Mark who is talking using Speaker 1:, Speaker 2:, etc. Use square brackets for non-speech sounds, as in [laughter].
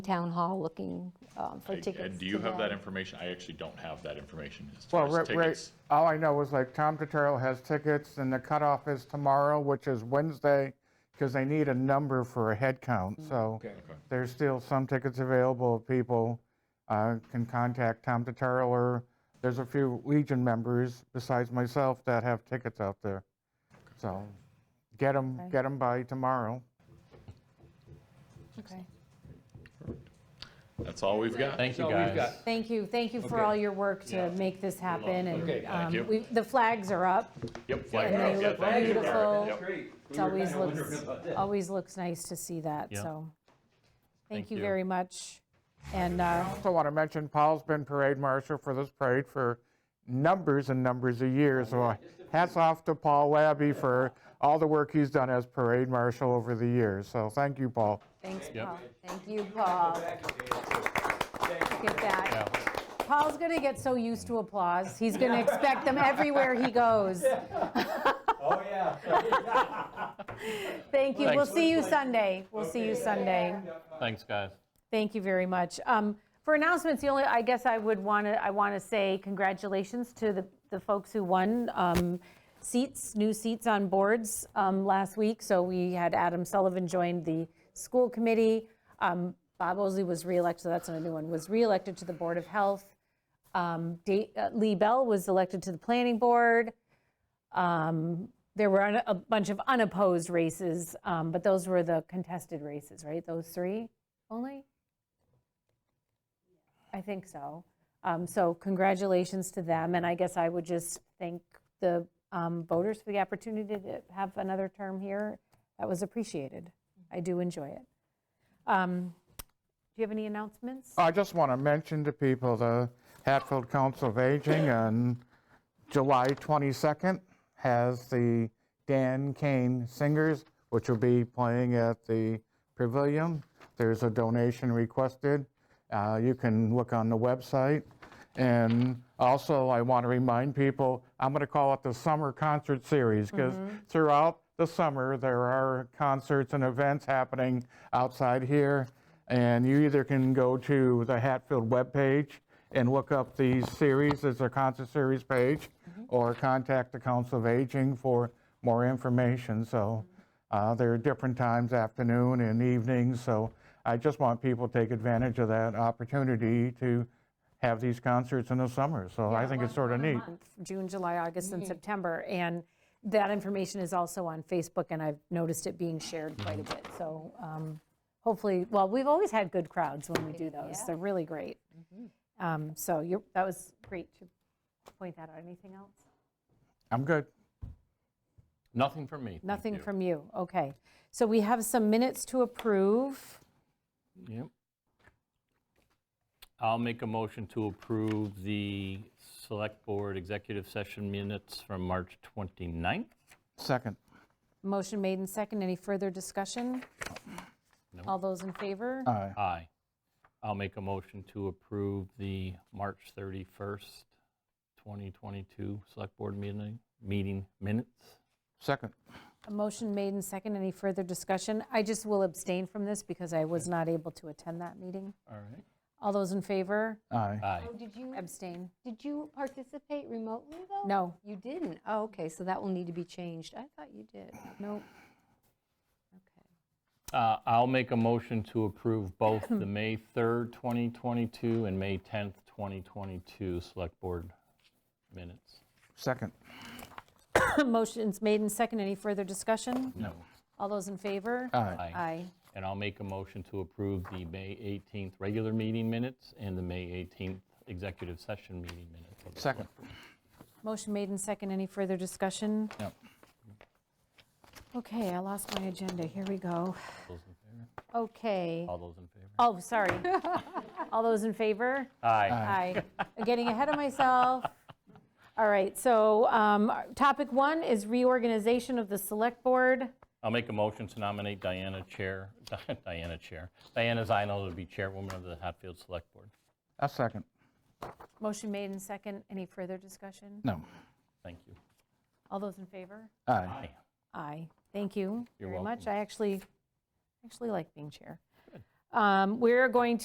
Speaker 1: town hall looking um, for
Speaker 2: I-
Speaker 1: tickets.
Speaker 2: And do you
Speaker 1: to
Speaker 2: have that information? I actually don't have that information as
Speaker 3: Well,
Speaker 2: far as
Speaker 3: right, right,
Speaker 2: tickets.
Speaker 3: all I know is like Tom Terrell has tickets and the cutoff is tomorrow, which is Wednesday, because they need a number for a head count, so there's still some tickets available. if People uh, can contact Tom Terrell or there's a few Legion members besides myself that have tickets out there. So get them, get them by tomorrow.
Speaker 1: Okay.
Speaker 2: That's all we've got.
Speaker 4: Thank you,
Speaker 5: So we've
Speaker 4: guys.
Speaker 5: got-
Speaker 1: Thank you, thank you for all your work to make this happen,
Speaker 5: Okay.
Speaker 1: and
Speaker 5: Thank
Speaker 1: um,
Speaker 2: you.
Speaker 1: we- the flags are up.
Speaker 2: Yep.
Speaker 1: And
Speaker 2: Flag
Speaker 1: they
Speaker 2: drop. Yeah,
Speaker 1: look
Speaker 2: thank you.
Speaker 1: beautiful.
Speaker 2: Yep.
Speaker 5: Great.
Speaker 1: It always looks, [laughs] always looks nice to see that,
Speaker 4: Yeah.
Speaker 1: so. Thank
Speaker 4: Thank
Speaker 1: you
Speaker 4: you.
Speaker 1: very much, and, uh,
Speaker 3: Also want to mention Paul's been parade marshal for this parade for numbers and numbers of years. So hats off to Paul Labby for all the work he's done as parade marshal over the years. So thank you, Paul.
Speaker 1: thanks,
Speaker 4: Yep.
Speaker 1: Paul. Thank you, Paul. Look at that. Paul's gonna get so used to applause, he's gonna expect them everywhere he goes.
Speaker 5: Oh, yeah.
Speaker 1: Thank you, we'll
Speaker 4: Thanks.
Speaker 1: see you Sunday, we'll see you Sunday.
Speaker 4: Thanks, guys.
Speaker 1: Thank you very much. Um, For announcements, the only, I guess I would want to, I want to say congratulations to the, the folks who won um, seats, new seats on boards um, last week. So we had Adam Sullivan joined the school committee. Um, Bob Osley was reelected, so that's not a new one, was reelected to the Board of Health. Um, Da- uh, Lee Bell was elected to the planning board. Um, There were un- a bunch of unopposed races, um, but those were the contested races, right? Those three only? I think so. Um, So congratulations to them, and I guess I would just thank the um, voters for the opportunity to have another term here. That was appreciated. I do enjoy it. Um, Do you have any announcements?
Speaker 3: I just want to mention to people the Hatfield Council of Aging on July 22nd has the Dan Kane Singers, which will be playing at the Pavilion. There's a donation requested. Uh, You can look on the website. And also, I want to remind people, I'm going to call it the Summer Concert Series because throughout the summer, there are concerts and events happening outside here. And you either can go to the Hatfield webpage and look up the series, it's a concert series page, or contact the Council of Aging for more information. So uh, there are different times, afternoon and evenings, so I just want people to take advantage of that opportunity to have these concerts in the summer. So I think it's sort of neat.
Speaker 1: June, July, August, and September. And that information is also on Facebook, and I've noticed it being shared quite a bit. So um, hopefully, well, we've always had good crowds when we do those. They're really great. Um, So you're, that was great to point that out. Anything else?
Speaker 3: I'm good.
Speaker 4: Nothing from me. thank
Speaker 1: Nothing
Speaker 4: you.
Speaker 1: from you. Okay. So we have some minutes to approve.
Speaker 4: Yep. I'll make a motion to approve the Select Board Executive Session minutes from March 29th.
Speaker 3: Second.
Speaker 1: Motion made and second. Any further discussion? All those in favor?
Speaker 3: Aye.
Speaker 4: Aye. I'll make a motion to approve the March 31st, 2022 Select Board meeting, meeting minutes.
Speaker 3: Second.
Speaker 1: A motion made and second. Any further discussion? I just will abstain from this because I was not able to attend that meeting.
Speaker 4: All right.
Speaker 1: All those in favor?
Speaker 3: Aye.
Speaker 4: Aye.
Speaker 6: Oh, did you,
Speaker 1: Abstain. [clears throat]
Speaker 6: did you participate remotely, though?
Speaker 1: No.
Speaker 6: You didn't? Oh, okay, so that will need to be changed. I thought you did.
Speaker 1: No.
Speaker 4: Uh, I'll make a motion to approve both [coughs] the May 3rd, 2022 and May 10th, 2022 Select Board minutes.
Speaker 3: Second.
Speaker 1: Motion's made and second. Any further discussion?
Speaker 4: No.
Speaker 1: All those in favor?
Speaker 3: Aye.
Speaker 4: Aye. And I'll make a motion to approve the May 18th regular meeting minutes and the May 18th executive session meeting minutes. of the
Speaker 3: Second.
Speaker 1: Motion made and second. Any further discussion?
Speaker 3: No.
Speaker 1: Okay, I lost my agenda. Here we go.
Speaker 4: select- those in favor?
Speaker 1: Okay.
Speaker 4: All those in favor?
Speaker 1: Oh, sorry. All those in favor?
Speaker 4: Aye.
Speaker 1: Aye. I'm Getting ahead of myself. All right, so um, topic one is reorganization of the select board.
Speaker 4: I'll make a motion to nominate Diana Chair, [laughs] Diana Chair, Diana Zinal to be Chairwoman of the Hatfield Select Board.
Speaker 3: A second.
Speaker 1: Motion made and second. Any further discussion?
Speaker 3: No.
Speaker 4: Thank you.
Speaker 1: All those in favor?
Speaker 3: Aye.
Speaker 4: Aye.
Speaker 1: Aye. Thank you
Speaker 4: You're
Speaker 1: very much. I actually, actually like being chair. Um, We're going to.